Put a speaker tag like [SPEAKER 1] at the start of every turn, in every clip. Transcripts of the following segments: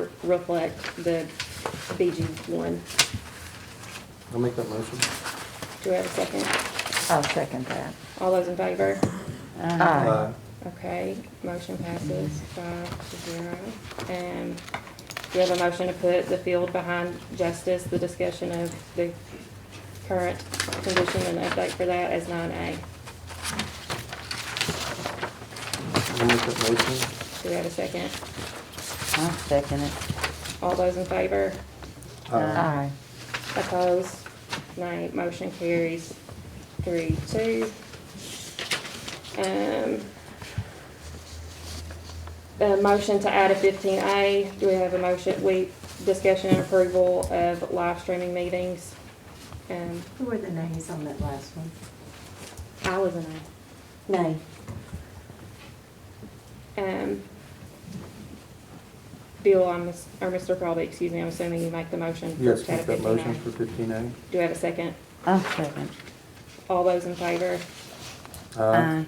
[SPEAKER 1] re- reflect the BG one.
[SPEAKER 2] I'll make that motion.
[SPEAKER 1] Do we have a second?
[SPEAKER 3] I'll second that.
[SPEAKER 1] All those in favor?
[SPEAKER 4] Uh,
[SPEAKER 5] Ah.
[SPEAKER 2] Uh,
[SPEAKER 3] Aye.
[SPEAKER 1] Okay, motion passes five to zero. And we have a motion to put the field behind justice, the discussion of the current condition and update for that as nine A.
[SPEAKER 2] I'll make that motion.
[SPEAKER 1] Do we have a second?
[SPEAKER 3] I'll second it.
[SPEAKER 1] All those in favor?
[SPEAKER 2] Uh,
[SPEAKER 3] Aye.
[SPEAKER 1] Opposed? Nay. Motion carries three, two. Um, a motion to add a fifteen A. Do we have a motion, we, discussion and approval of live streaming meetings? Um,
[SPEAKER 4] Who were the nays on that last one?
[SPEAKER 1] I was an
[SPEAKER 4] Nay.
[SPEAKER 1] aye. Um, Bill, I'm, or Mr. Crowley, excuse me, I'm assuming you make the motion. for
[SPEAKER 2] Yes,
[SPEAKER 1] to add
[SPEAKER 2] make
[SPEAKER 1] a
[SPEAKER 2] that
[SPEAKER 1] 15A.
[SPEAKER 2] motion for fifteen A.
[SPEAKER 1] Do we have a second?
[SPEAKER 3] I'll second.
[SPEAKER 1] All those in favor?
[SPEAKER 2] Uh,
[SPEAKER 3] Aye.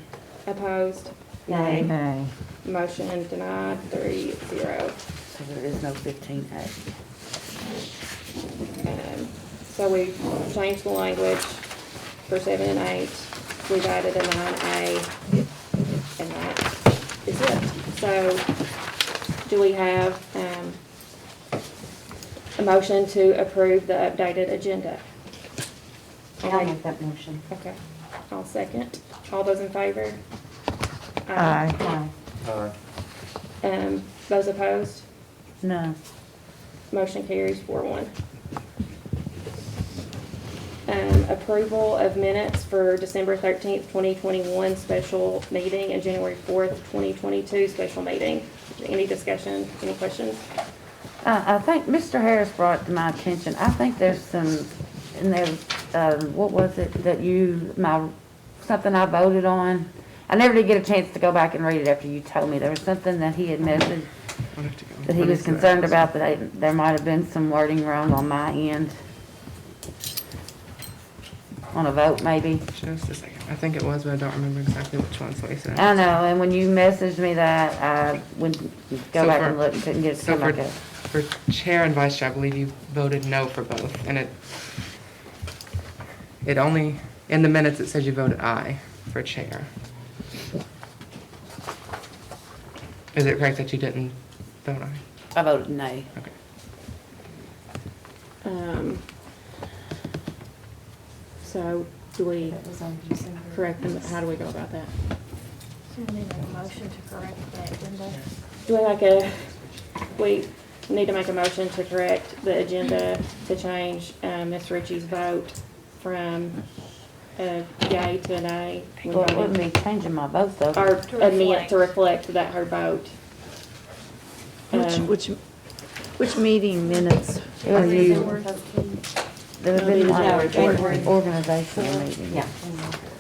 [SPEAKER 1] Opposed?
[SPEAKER 4] Nay.
[SPEAKER 3] Nay.
[SPEAKER 1] Motion denied, three zero.
[SPEAKER 3] So there is no fifteen A.
[SPEAKER 1] Um, So we changed the language for seven and eight. We've added a nine A. And that is it. So do we have, um, a motion to approve the updated agenda?
[SPEAKER 4] I'll make that motion.
[SPEAKER 1] Okay, I'll second. All those in favor?
[SPEAKER 3] Aye.
[SPEAKER 4] Aye.
[SPEAKER 2] Aye.
[SPEAKER 1] Um, those opposed?
[SPEAKER 3] No.
[SPEAKER 1] Motion carries four one. Um, approval of minutes for December thirteenth, twenty twenty-one special meeting and January fourth, twenty twenty-two special meeting. Any discussion, any questions?
[SPEAKER 3] Uh, I think Mr. Harris brought to my attention, I think there's some, in there, uh, what was it that you, my, something I voted on? I never did get a chance to go back and read it after you told me. There was something that he had messaged that he was concerned about, that I, there might have been some wording wrong on my end. On a vote, maybe.
[SPEAKER 6] Just a second. I think it was, but I don't remember exactly which one, so I said.
[SPEAKER 3] I know, and when you messaged me that, I wouldn't go
[SPEAKER 6] So
[SPEAKER 3] back
[SPEAKER 6] for-
[SPEAKER 3] and look, couldn't get it to
[SPEAKER 6] So
[SPEAKER 3] my
[SPEAKER 6] for,
[SPEAKER 3] gut.
[SPEAKER 6] for chair and vice chair, I believe you voted no for both, and it, it only, in the minutes, it says you voted aye for chair. Is it correct that you didn't vote aye?
[SPEAKER 3] I voted nay.
[SPEAKER 6] Okay.
[SPEAKER 1] Um, so do we
[SPEAKER 4] That was on December.
[SPEAKER 1] correct them? How do we go about that?
[SPEAKER 7] So we need a motion to correct that agenda.
[SPEAKER 1] Do we like a, we need to make a motion to correct the agenda to change, um, Ms. Ritchie's vote from a yay to an nay? when
[SPEAKER 3] Well, it
[SPEAKER 1] voting.
[SPEAKER 3] wouldn't be changing my vote though.
[SPEAKER 1] Or
[SPEAKER 7] To
[SPEAKER 1] amend, to
[SPEAKER 7] reflect.
[SPEAKER 1] reflect that her vote.
[SPEAKER 5] Which,
[SPEAKER 1] Um,
[SPEAKER 5] which, which meeting minutes
[SPEAKER 3] It
[SPEAKER 5] are
[SPEAKER 3] was you-
[SPEAKER 5] you?
[SPEAKER 4] December 13th.
[SPEAKER 3] There was
[SPEAKER 1] No, it
[SPEAKER 3] been
[SPEAKER 1] was
[SPEAKER 3] one
[SPEAKER 4] our
[SPEAKER 3] or-
[SPEAKER 4] January.
[SPEAKER 3] organizational meeting.
[SPEAKER 4] Yeah.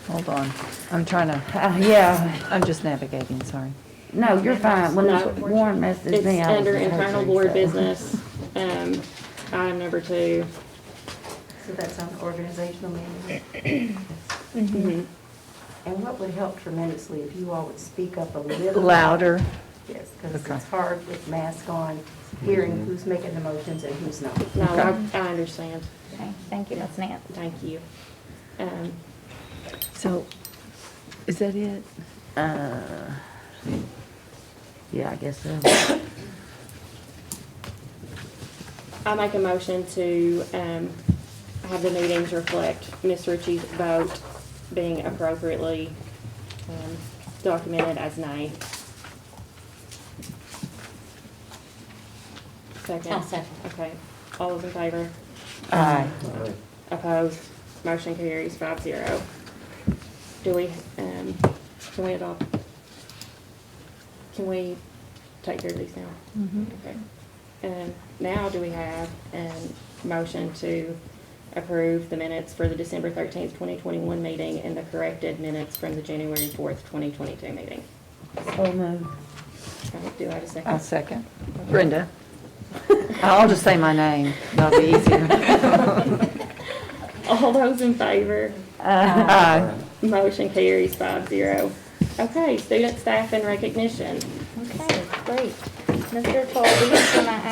[SPEAKER 5] Hold on, I'm trying to,
[SPEAKER 3] Uh, yeah,
[SPEAKER 5] I'm just navigating, sorry.
[SPEAKER 3] no, you're fine. When
[SPEAKER 1] No.
[SPEAKER 3] Warren messaged
[SPEAKER 1] It's
[SPEAKER 3] me, I was
[SPEAKER 1] under
[SPEAKER 3] in surgery,
[SPEAKER 1] internal board
[SPEAKER 3] so-
[SPEAKER 1] business, um, item number two.
[SPEAKER 4] So that's on organizational meeting.
[SPEAKER 3] Mm-hmm.
[SPEAKER 1] Mm-hmm.
[SPEAKER 4] And what would help tremendously if you all would speak up a little.
[SPEAKER 5] Louder.
[SPEAKER 4] Yes, because
[SPEAKER 5] Okay. Mm-hmm.
[SPEAKER 4] it's hard with mask on, hearing who's making the motions and who's not.
[SPEAKER 1] No, I, I understand.
[SPEAKER 7] Okay, thank you, Ms. Nance.
[SPEAKER 1] Thank you. Um,
[SPEAKER 5] So, is that it?
[SPEAKER 3] Uh, Yeah, I guess so.
[SPEAKER 1] I make a motion to, um, have the meetings reflect Ms. Ritchie's vote being appropriately, um, documented as nay. Second.
[SPEAKER 4] I'll second.
[SPEAKER 1] Okay, all those in favor?
[SPEAKER 3] Aye.
[SPEAKER 2] Aye.
[SPEAKER 1] Opposed, motion carries five zero. Do we, um, can we adopt? Can we take care of these now?
[SPEAKER 5] Mm-hmm.
[SPEAKER 1] Okay. And now do we have a motion to approve the minutes for the December thirteenth, twenty twenty-one meeting and the corrected minutes from the January fourth, twenty twenty-two meeting?
[SPEAKER 3] So moved.
[SPEAKER 1] Okay, Do I have a 2nd
[SPEAKER 5] I'll second. Brenda? I'll just say my name, that'll be easier. Uh,
[SPEAKER 1] All those in favor?
[SPEAKER 5] Aye.
[SPEAKER 2] uh,
[SPEAKER 1] Motion carries five zero. Okay, student staff and recognition.
[SPEAKER 7] Okay, great. Mr. Colby, can I